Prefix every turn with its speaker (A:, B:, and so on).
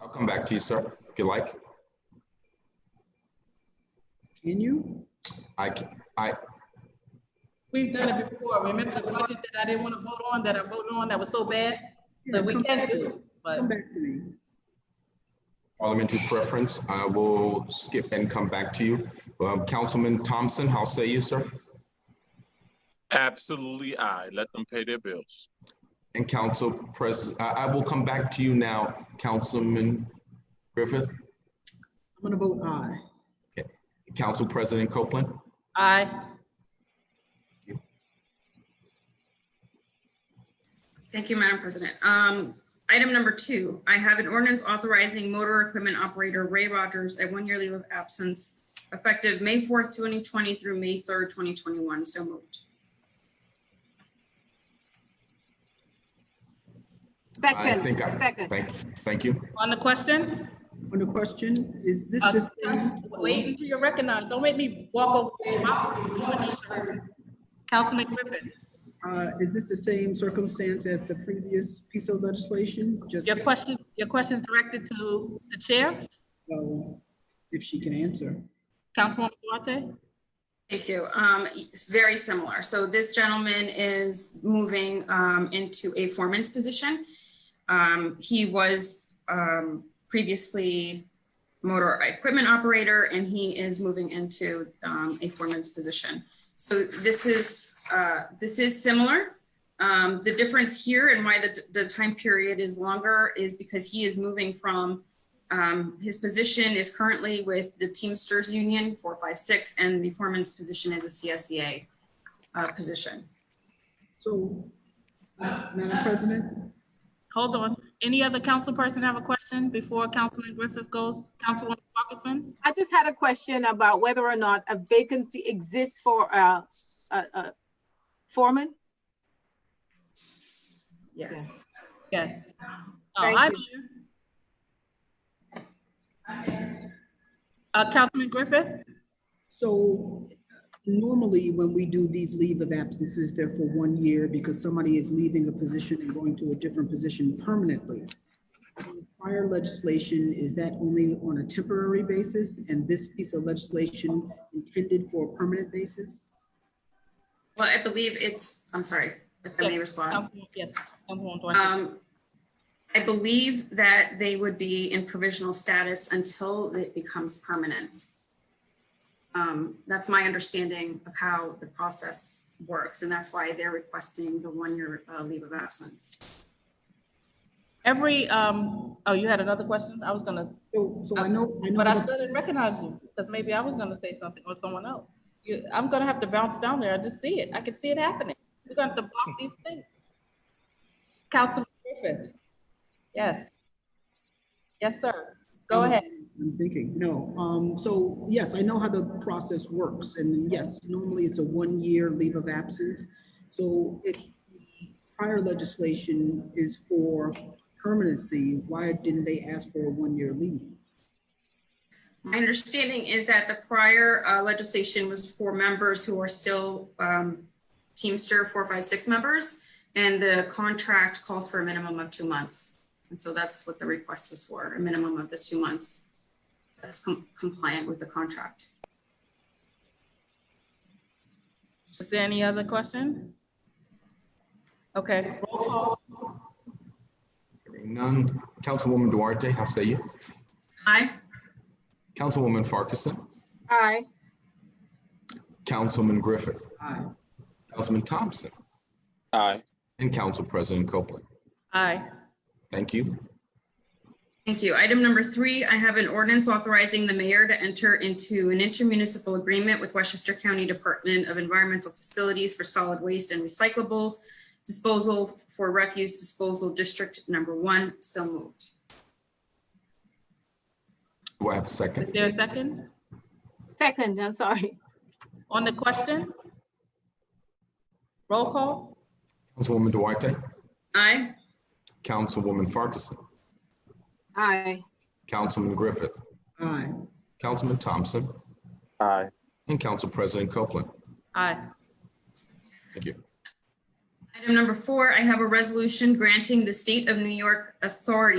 A: I'll come back to you, sir, if you like.
B: Can you?
A: I, c- I,
C: We've done it before. Remember the budget that I didn't want to vote on, that I voted on, that was so bad?
B: Yeah,
C: So we
B: come
C: can
B: back
C: do
B: to
C: it, but
B: Come back to me.
A: parliamentary preference, I will skip and come back to you. Um, Councilman Thompson, how say you, sir?
D: Absolutely aye. Let them pay their bills.
A: And Council Pres, I, I will come back to you now, Councilman Griffith,
B: I'm gonna vote aye.
A: Council President Copeland.
C: I,
E: Thank you, Madam President. Um, item number two, I have an ordinance authorizing motor equipment operator Ray Rogers a one-year leave of absence effective May fourth, twenty twenty through May third, twenty twenty-one. So moved.
A: I think I,
F: Second, second.
A: thank, thank you.
C: on the question?
B: On the question, is this
C: Uh,
B: discussion?
C: Wait until you're recognized. Don't make me walk over. My woman is hurt. Councilman Griffin,
B: Uh, is this the same circumstance as the previous piece of legislation? Just,
C: your question, your question is directed to the chair,
B: well, if she can answer.
C: Councilwoman Duarte?
E: Thank you. Um, it's very similar. So this gentleman is moving, um, into a foreman's position. Um, he was, um, previously motor equipment operator and he is moving into, um, a foreman's position. So this is, uh, this is similar. Um, the difference here and why the, the time period is longer is because he is moving from, um, his position is currently with the Teamsters Union four five six, and the foreman's position is a CSEA uh, position.
B: So, Madam President,
C: Hold on. Any other council person have a question before Councilman Griffith goes? Councilwoman Parkinson?
F: I just had a question about whether or not a vacancy exists for uh, a, a, a foreman.
E: Yes.
C: Yes. Uh,
F: Thank
C: I'm here. Uh, Councilman Griffith?
B: so normally when we do these leave of absences, they're for one year because somebody is leaving a position and going to a different position permanently. The Prior legislation, is that only on a temporary basis and this piece of legislation intended for a permanent basis?
E: Well, I believe it's, I'm sorry, if I may respond.
C: Councilwoman- Yes, Councilwoman Duarte.
E: Um, I believe that they would be in provisional status until it becomes permanent. Um, That's my understanding of how the process works, and that's why they're requesting the one-year uh, leave of absence.
C: Every, um, oh, you had another question? I was gonna,
B: So, so I know, I know.
C: but I
B: that-
C: still didn't recognize you, because maybe I was gonna say something or someone else. You, I'm gonna have to bounce down there. I just see it. I can see it happening. We're gonna have to block these things. Councilman Griffith? Yes. Yes, sir. Go
B: I'm-
C: ahead.
B: Um, I'm thinking, no, um, so, yes, I know how the process works, and yes, normally it's a one-year leave of absence. So if the prior legislation is for permanency, why didn't they ask for a one-year leave?
E: My understanding is that the prior uh, legislation was for members who are still um, Teamster 456 members, and the contract calls for a minimum of two months. And so that's what the request was for, a minimum of the two months. That's com- compliant with the contract.
C: Is there any other question? Okay, roll call.
A: Hearing None. Councilwoman Duarte, how say you?
E: Aye.
A: Councilwoman Farquharson,
F: Aye.
A: Councilman Griffith,
B: Aye.
A: Councilman Thompson,
D: Aye.
A: and Council President Copeland.
C: Aye.
A: Thank you.
E: Thank you. Item number three, I have an ordinance authorizing the mayor to enter into an intermunicipal agreement with Westchester County Department of Environmental Facilities for Solid Waste and Recyclables Disposal for Refuse Disposal District Number One. So moved.
A: Do I have a
C: Is
A: second?
C: there a second
F: Second, I'm sorry.
C: on the question? Roll call.
A: Councilwoman Duarte,
E: Aye.
A: Councilwoman Farquharson,
F: Aye.
A: Councilman Griffith,
B: Aye,
A: Councilman Thompson,
D: Aye.
A: and Council President Copeland.
C: Aye.
A: Thank you.
E: Item number four, I have a resolution granting the State of New York authority